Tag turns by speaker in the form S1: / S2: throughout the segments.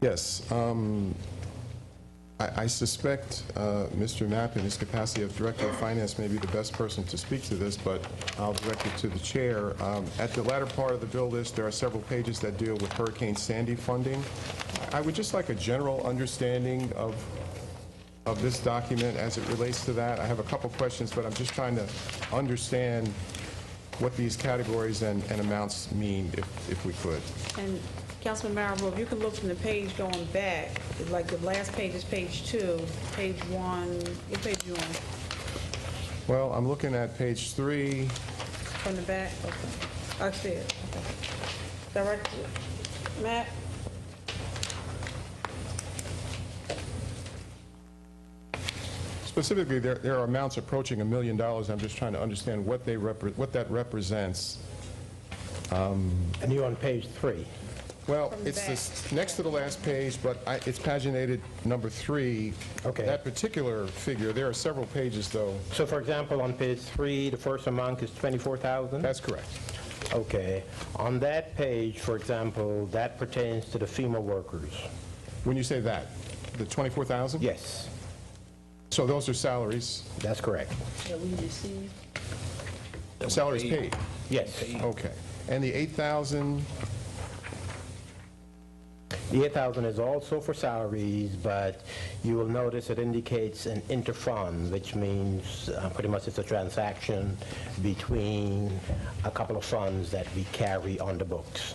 S1: Yes. um, I I suspect uh, Mr. Knapp, in his capacity of Director of Finance, may be the best person to speak to this, but I'll direct it to the Chair. Um, At the latter part of the bill list, there are several pages that deal with Hurricane Sandy funding. I would just like a general understanding of of this document as it relates to that. I have a couple questions, but I'm just trying to understand what these categories and and amounts mean, if if we could.
S2: And Councilman Marable, if you can look from the page going back, like the last page is page two, page one, what page you on?
S1: Well, I'm looking at page three.
S2: From the back? Okay. I see it. Okay. Director, Matt?
S1: Specifically, there, there are amounts approaching a million dollars. I'm just trying to understand what they repre, what that represents.
S3: And you're on page three.
S1: Well,
S2: From the
S1: it's
S2: back.
S1: this, next to the last page, but I, it's paginated number three.
S3: Okay.
S1: That particular figure, there are several pages, though.
S3: So for example, on page three, the first amount is 24,000?
S1: That's correct.
S3: Okay. On that page, for example, that pertains to the FEMA workers.
S1: When you say that, the 24,000?
S3: Yes,
S1: So those are salaries,
S3: that's correct.
S2: That we received.
S1: salaries paid.
S3: Yes.
S1: Okay. And the 8,000,
S3: The 8,000 is also for salaries, but you will notice it indicates an interfund, which means uh, pretty much it's a transaction between a couple of funds that we carry on the books.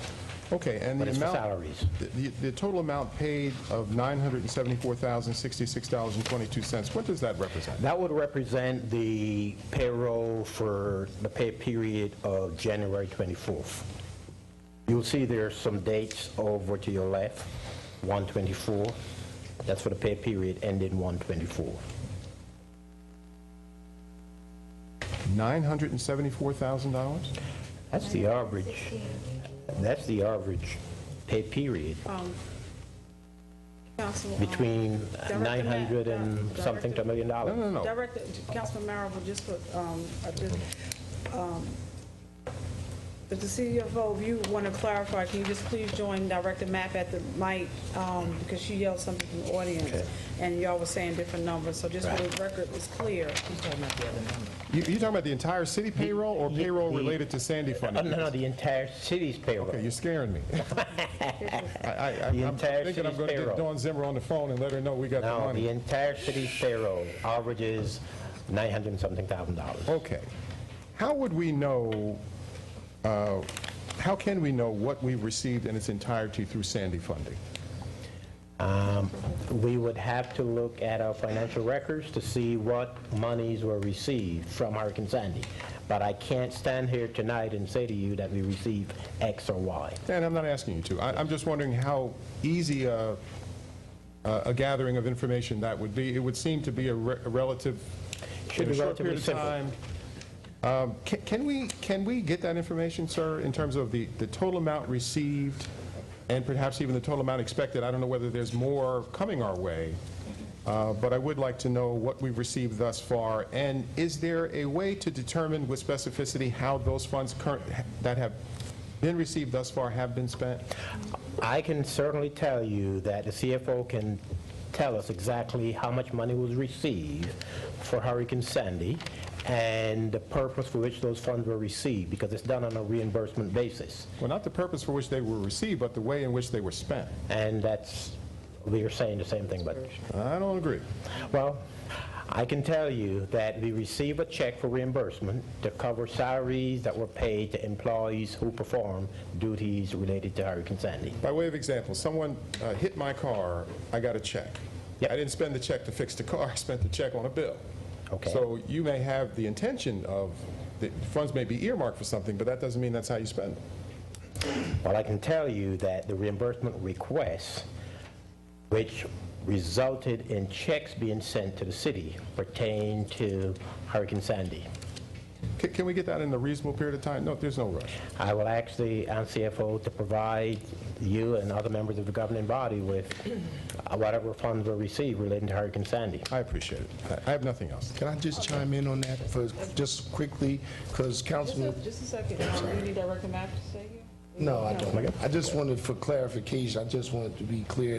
S1: okay, and the amount...
S3: But it's for salaries.
S1: the- The, the total amount paid of $974,066.22, what does that represent?
S3: That would represent the payroll for the pay period of January 24th. You'll see there's some dates over to your left, 124. That's for the pay period ending 124.
S1: $974,000?
S3: That's the average. That's the average pay period
S2: Council. um,
S3: between
S2: Director Matt,
S3: 900 and
S2: Director-
S3: something to a million dollars.
S1: No, no, no.
S2: Director, Councilman Marable, just for, um, I just, um, if the CFO, if you want to clarify, can you just please join Director Mapp at the mic, um, because she yelled something from the audience,
S3: Okay.
S2: and y'all were saying different numbers, so just for
S3: Right.
S2: the record is clear.
S1: You, you talking about the entire city payroll or payroll related to Sandy
S3: No,
S1: funding?
S3: no, no, the entire city's payroll.
S1: Okay, you're scaring me. I, I,
S3: The
S1: I'm
S3: entire
S1: thinking I'm
S3: city's
S1: gonna get
S3: payroll.
S1: Dawn Zimmer on the phone and let her know we got the
S3: Now, the
S1: money.
S3: entire city's payroll averages 900 and something thousand dollars.
S1: Okay. How would we know, uh, how can we know what we received in its entirety through Sandy funding?
S3: Um, We would have to look at our financial records to see what monies were received from Hurricane Sandy. But I can't stand here tonight and say to you that we received X or Y.
S1: And I'm not asking you to. I, I'm just wondering how easy a, a a gathering of information that would be. It would seem to be a re- a relative,
S3: Should
S1: in a
S3: be
S1: short period of time.
S3: relatively
S1: Um, ca- Can we, can we get that information, sir, in terms of the, the total amount received and perhaps even the total amount expected? I don't know whether there's more coming our way, uh, but I would like to know what we've received thus far. And is there a way to determine with specificity how those funds current, that have been received thus far have been spent?
S3: I can certainly tell you that the CFO can tell us exactly how much money was received for Hurricane Sandy and the purpose for which those funds were received, because it's done on a reimbursement basis.
S1: Well, not the purpose for which they were received, but the way in which they were spent.
S3: And that's, we are saying the same thing, but
S1: I don't agree.
S3: Well, I can tell you that we receive a check for reimbursement to cover salaries that were paid to employees who perform duties related to Hurricane Sandy.
S1: By way of example, someone uh, hit my car, I got a check.
S3: Yep.
S1: I didn't spend the check to fix the car, I spent the check on a bill.
S3: Okay.
S1: So you may have the intention of, the funds may be earmarked for something, but that doesn't mean that's how you spend them.
S3: Well, I can tell you that the reimbursement requests, which resulted in checks being sent to the city pertain to Hurricane Sandy.
S1: Ca- Can we get that in a reasonable period of time? No, there's no rush.
S3: I will ask the uh, CFO to provide you and other members of the governing body with uh, whatever funds were received relating to Hurricane Sandy.
S1: I appreciate it. I- I have nothing else.
S4: Can I just chime in on that for, just quickly, because Councilman,
S2: Just a second, um, you need Director Mapp to say here?
S4: no, I don't. I just wanted for clarification, I just wanted to be clear